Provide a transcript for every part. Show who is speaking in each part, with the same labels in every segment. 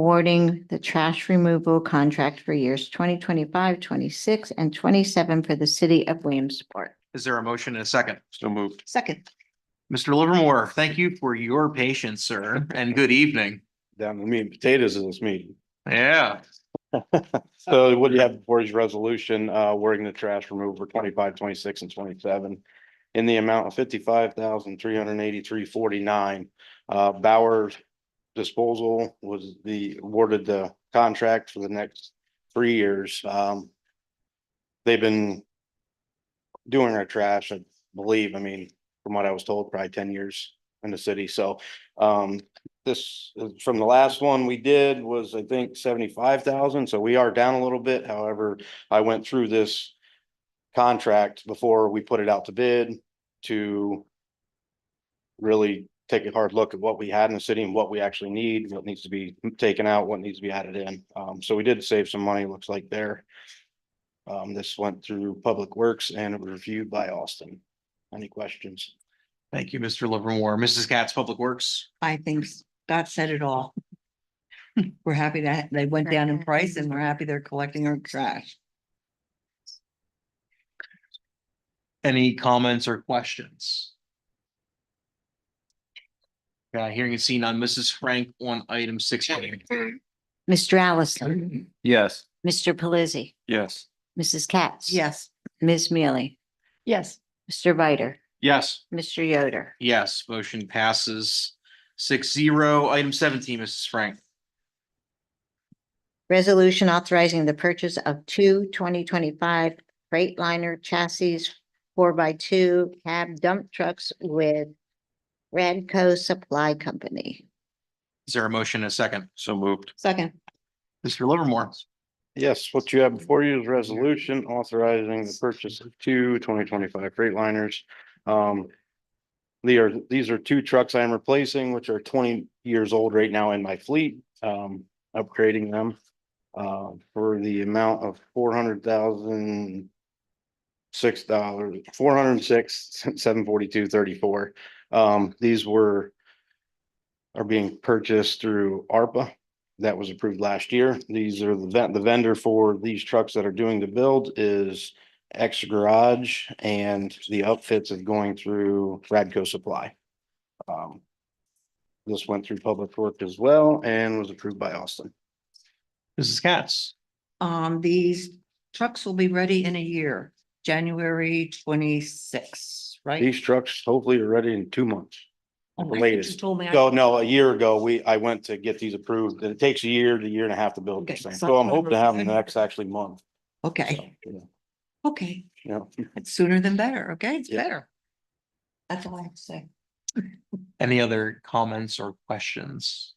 Speaker 1: awarding the trash removal contract for years 2025, 26, and twenty-seven for the city of Williamsport.
Speaker 2: Is there a motion and a second?
Speaker 3: So moved.
Speaker 1: Second.
Speaker 2: Mr. Livermore, thank you for your patience, sir, and good evening.
Speaker 3: Down to meat and potatoes in this meeting.
Speaker 2: Yeah,
Speaker 3: So what you have before is resolution, uh, awarding the trash removal for 25, 26, and twenty-seven in the amount of fifty-five thousand, three hundred and eighty-three, forty-nine. Uh, Bauer Disposal was the, awarded the contract for the next three years. Um, they've been doing our trash, I believe, I mean, from what I was told, probably ten years in the city. So, um, this, is from the last one we did was, I think, seventy-five thousand, so we are down a little bit. However, I went through this contract before we put it out to bid to really take a hard look at what we had in the city and what we actually need, what needs to be taken out, what needs to be added in. Um, so we did save some money, looks like there. Um, this went through Public Works and it was reviewed by Austin. Any questions?
Speaker 2: thank you, Mr. Livermore. Mrs. Katz, Public Works.
Speaker 4: I think Scott said it all. We're happy that they went down in price and we're happy they're collecting our trash.
Speaker 2: Any comments or questions? Yeah, hearing and seeing none. Mrs. Frank on item six.
Speaker 1: Mr. Allison,
Speaker 3: Yes.
Speaker 1: Mr. Pelisi,
Speaker 3: Yes.
Speaker 1: Mrs. Katz.
Speaker 4: Yes.
Speaker 1: Ms. Mealy,
Speaker 4: Yes.
Speaker 1: Mr. Viter,
Speaker 2: Yes,
Speaker 1: Mr. Yoder.
Speaker 2: yes, motion passes six zero. Item seventeen, Mrs. Frank.
Speaker 1: Resolution authorizing the purchase of two 2025 Freightliner chassis four by two cab dump trucks with Radco Supply Company.
Speaker 2: Is there a motion and a second?
Speaker 3: So moved.
Speaker 4: Second.
Speaker 2: Mr. Livermore.
Speaker 3: Yes, what you have before you is resolution authorizing the purchase of two 2025 Freightliners. Um, they are, these are two trucks I am replacing, which are twenty years old right now in my fleet, um, upgrading them. Uh, for the amount of four hundred thousand six dollars, four hundred and six, seven forty-two, thirty-four. Um, these were are being purchased through ARPA that was approved last year. These are the ven- the vendor for these trucks that are doing the build is X Garage and the outfits of going through Radco Supply. Um, This went through Public Work as well and was approved by Austin.
Speaker 2: Mrs. Katz.
Speaker 4: Um, these trucks will be ready in a year, January twenty-six, right?
Speaker 3: These trucks hopefully are ready in two months.
Speaker 4: Oh, I
Speaker 3: the
Speaker 4: think You
Speaker 3: latest.
Speaker 4: told me. I-
Speaker 3: So no, a year ago, we, I went to get these approved. and It takes a year to year and a half to build this
Speaker 4: Okay,
Speaker 3: thing.
Speaker 4: so
Speaker 3: So I'm hoping to have them
Speaker 4: October.
Speaker 3: next actually month.
Speaker 4: Okay,
Speaker 3: Yeah.
Speaker 4: okay.
Speaker 3: Yeah.
Speaker 4: It's sooner than better. Okay, it's
Speaker 3: Yeah.
Speaker 4: better. That's all I have to say.
Speaker 2: Any other comments or questions?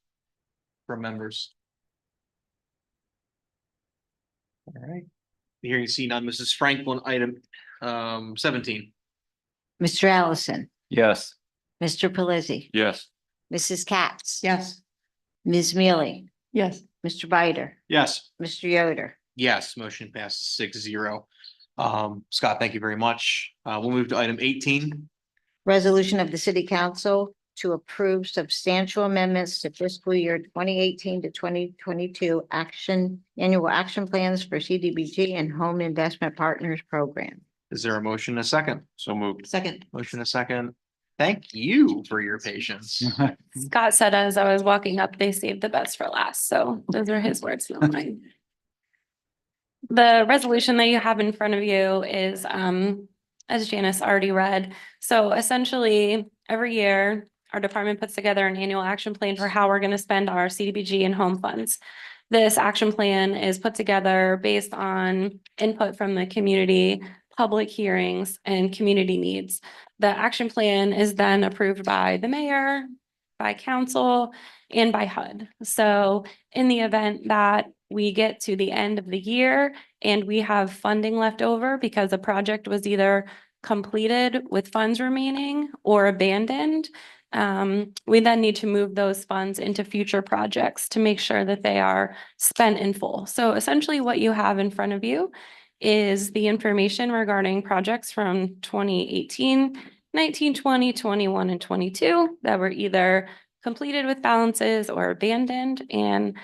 Speaker 2: From members? All right. Hearing and seeing none, Mrs. Franklin, item um seventeen.
Speaker 1: Mr. Allison,
Speaker 3: Yes.
Speaker 1: Mr. Pelisi,
Speaker 3: Yes.
Speaker 1: Mrs. Katz.
Speaker 4: Yes.
Speaker 1: Ms. Mealy,
Speaker 4: Yes.
Speaker 1: Mr. Viter,
Speaker 2: Yes.
Speaker 1: Mr. Yoder.
Speaker 2: Yes, motion passes six zero. Um, Scott, thank you very much. Uh, we'll move to item eighteen.
Speaker 1: Resolution of the City Council to approve substantial amendments to fiscal year twenty eighteen to twenty twenty-two action, annual action plans for CDBG and Home Investment Partners Program.
Speaker 2: Is there a motion, and a second?
Speaker 3: So moved.
Speaker 4: Second.
Speaker 2: Motion, and a second. Thank you for your patience.
Speaker 5: Scott said as I was walking up, they saved the best for last. So those are his words, not mine. The resolution that you have in front of you is, um, as Janice already read. So essentially, every year, our department puts together an annual action plan for how we're going to spend our CDBG and home funds. This action plan is put together based on input from the community, public hearings, and community needs. The action plan is then approved by the mayor, by council and by HUD. So in the event that we get to the end of the year and we have funding left over because a project was either completed with funds remaining or abandoned, um, we then need to move those funds into future projects to make sure that they are spent in full. So essentially what you have in front of you is the information regarding projects from 2018, 19, 20, 21, and twenty-two that were either completed with balances or abandoned. And